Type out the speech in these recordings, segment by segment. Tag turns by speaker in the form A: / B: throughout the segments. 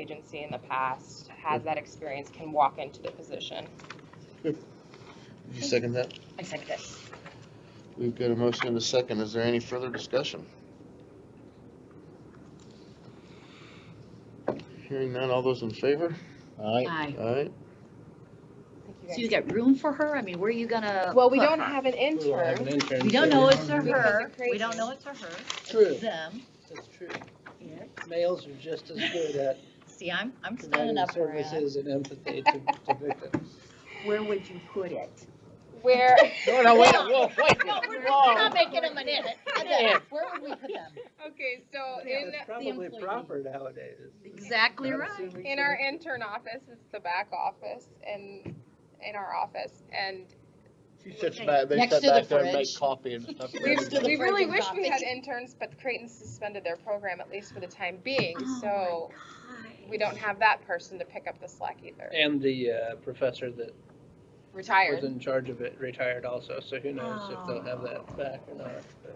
A: agency in the past, has that experience, can walk into the position.
B: You second that?
C: I second it.
B: We've got a motion and a second. Is there any further discussion? Hearing none, all those in favor?
D: Aye.
C: Aye.
B: Aye.
A: Thank you
C: So
A: guys.
C: you got room for her? I mean, where are you gonna?
A: Well, we
C: put
A: don't
C: her?
A: have an
D: We don't have
A: intern.
D: an intern,
C: We
D: so
C: don't know
D: we
C: it's a
D: don't know.
C: her.
A: Because it's
C: We don't
A: crazy.
C: know it's a her.
D: True.
C: It's them.
D: That's true.
C: Yeah.
D: Males are just as good at
C: See, I'm, I'm standing
D: providing
C: up for it.
D: services and empathy to, to victims.
C: Where would you put it?
A: Where,
D: No, no, wait, whoa, wait.
C: No, we're,
D: whoa.
C: we're not making them an edit. Where would we put them?
A: okay, so in,
D: That's probably
C: employee.
D: proper nowadays.
C: Exactly
D: I'm
C: right.
D: assuming
A: in
D: so.
A: our intern office, it's the back office and, in our office, and
B: You
C: sit back-
B: they
C: Next sit to the back there and make fridge.
B: coffee and stuff.
A: We,
C: Next to the
A: we
C: fridge
A: really
C: and
A: wish we had
C: coffee.
A: interns, but Creighton suspended their program, at least for the time being,
C: Oh
A: so we don't have that person to pick up the slack either.
D: And the uh, professor that was
A: Retired.
D: in charge of it retired also, so who knows if they'll have that back or not. but-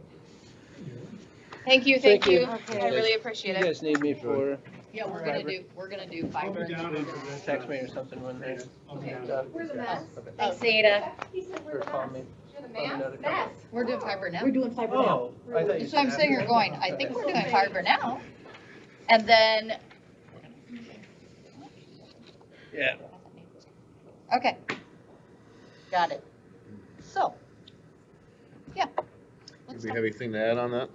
A: Thank you,
D: Thank
A: thank you.
D: you.
A: I really appreciate
D: You
A: it.
D: guys need me for,
C: Yeah, we're gonna do, we're gonna do
E: I'll
C: five
E: be down
C: minutes.
E: into this.
D: text me or something when they're.
E: I'll be down.
D: done.
A: We're the best.
D: Okay.
C: Thanks, Ada.
D: Or call me.
A: You're the
D: Probably
A: man.
D: another
A: Best.
C: We're doing fiber now.
F: We're doing fiber now.
D: Oh, I thought you
C: So I'm
D: said
C: sitting
D: after.
C: here going, I
D: Okay.
C: think we're doing fiber now. And then,
D: Yeah.
C: okay. Got it. So, yeah. Let's
B: Do we
C: talk-
B: have anything to add on that?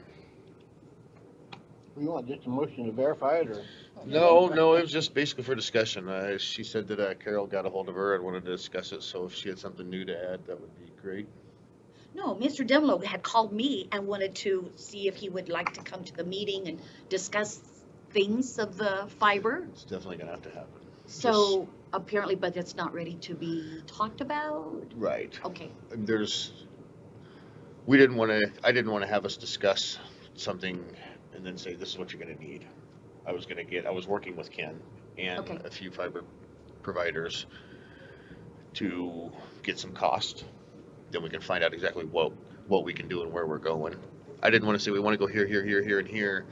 G: We want just a motion to verify it, or?
B: No, no, it was just basically for discussion. Uh, she said that uh, Carol got a hold of her and wanted to discuss it, so if she had something new to add, that would be great.
F: No, Mr. Demlo had called me and wanted to see if he would like to come to the meeting and discuss things of the fiber.
B: It's definitely gonna have to happen.
F: So apparently, but it's not ready to be talked about.
B: Right.
F: Okay,
B: there's, we didn't want to, I didn't want to have us discuss something and then say, this is what you're going to need. I was going to get, I was working with Ken and
F: Okay.
B: a few fiber providers to get some cost. Then we can find out exactly what, what we can do and where we're going. I didn't want to say, we want to go here, here, here, here, and here,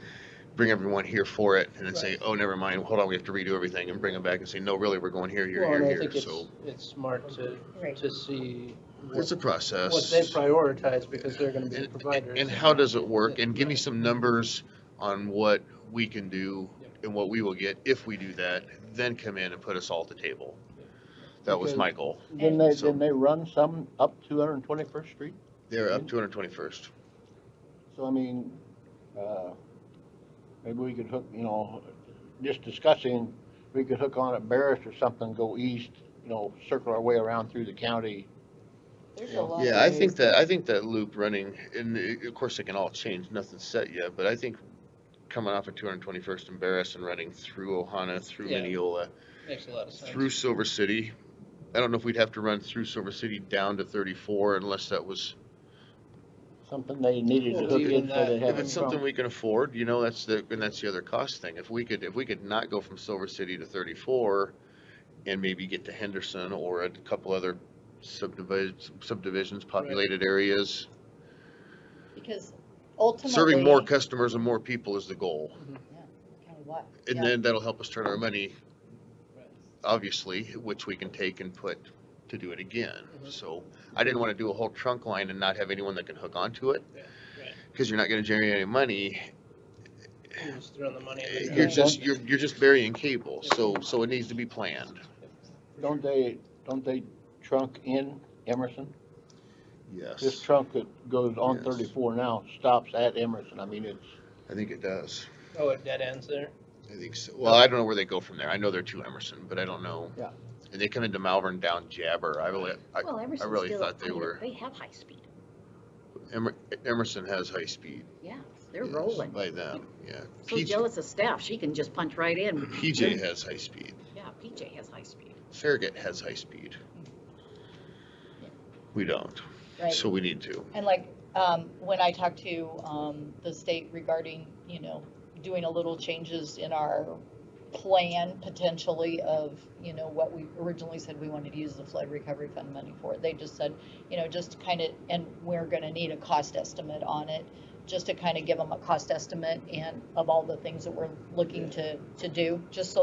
B: bring everyone here for it, and then say, oh, never mind, hold on, we have to redo everything, and bring them back and say, no, really, we're going here, here,
D: Well, and I
B: here,
D: think
B: here,
D: it's,
B: so.
D: it's smart to,
C: Right.
D: to see
B: It's
D: what
B: a process.
D: what they prioritize because they're gonna be the
B: And-
D: providers.
B: And how does it work? And give me some numbers on what we can do and what we will get if we do that, then come in and put us all at the table. That was my goal.
G: Didn't they,
B: So-
G: didn't they run some up two hundred and twenty-first street?
B: They're up two hundred twenty-first.
G: So I mean, uh, maybe we could hook, you know, just discussing, we could hook on at Barris or something, go east, you know, circle our way around through the county.
C: There's a lot
B: Yeah, I
C: of-
B: think that, I think that loop running, and uh, of course it can all change, nothing's set yet, but I think coming off of two hundred twenty-first and Barris and running through Ohana, through
D: Yeah.
B: Mineola,
D: Makes a lot of sense.
B: through Silver City. I don't know if we'd have to run through Silver City down to thirty-four unless that was
G: Something they needed to
D: Well,
G: hook
D: even
G: in so they
D: that-
G: have
B: If
G: it
B: it's something
G: from.
B: we can afford, you know, that's the, and that's the other cost thing. If we could, if we could not go from Silver City to thirty-four and maybe get to Henderson or a couple other subdivisions, subdivisions, populated areas.
C: Because
B: Serving more
C: ultimately.
B: customers and more people is the goal.
C: Kind of what?
B: And
C: Yeah.
B: then that'll help us turn our money,
D: Right.
B: obviously, which we can take and put to do it again.
D: Mhm.
B: So I didn't want to do a whole trunk line and not have anyone that can hook onto it.
D: Yeah, right.
B: Cause you're not gonna generate any money
D: You're Just throwing the money. at the
B: You're
D: guy.
B: just, you're, you're just burying cable, so, so it needs to be planned.
G: Don't they, don't they trunk in Emerson? This
B: Yes,
G: trunk that goes on
B: Yes.
G: thirty-four now stops at Emerson. I mean, it's,
B: I think it does.
D: Oh, it dead ends there.
B: I think so. Well, I don't know where they go from there. I know they're to Emerson, but I don't know.
G: Yeah.
B: And they come into Malvern down Jabber. I really, I,
F: well, Emerson's
B: really
F: still,
B: thought they
F: I mean,
B: were-
F: They have high speed,
B: Emer- Emerson has high speed.
F: yeah, they're
B: yes,
F: rolling.
B: By them, yeah.
F: So
B: PJ,
F: jealous of staff, she can just punch right in,
B: PJ has high speed.
F: yeah, PJ has high speed.
B: Farragut has high speed.
F: Mm.
B: We don't,
C: Right.
B: so we need to.
C: And like, um, when I talked to, um, the state regarding, you know, doing a little changes in our plan potentially of, you know, what we originally said we wanted to use the flood recovery fund money for, they just said, you know, just kind of, and we're gonna need a cost estimate on it, just to kind of give them a cost estimate and of all the things that we're looking to, to do, just so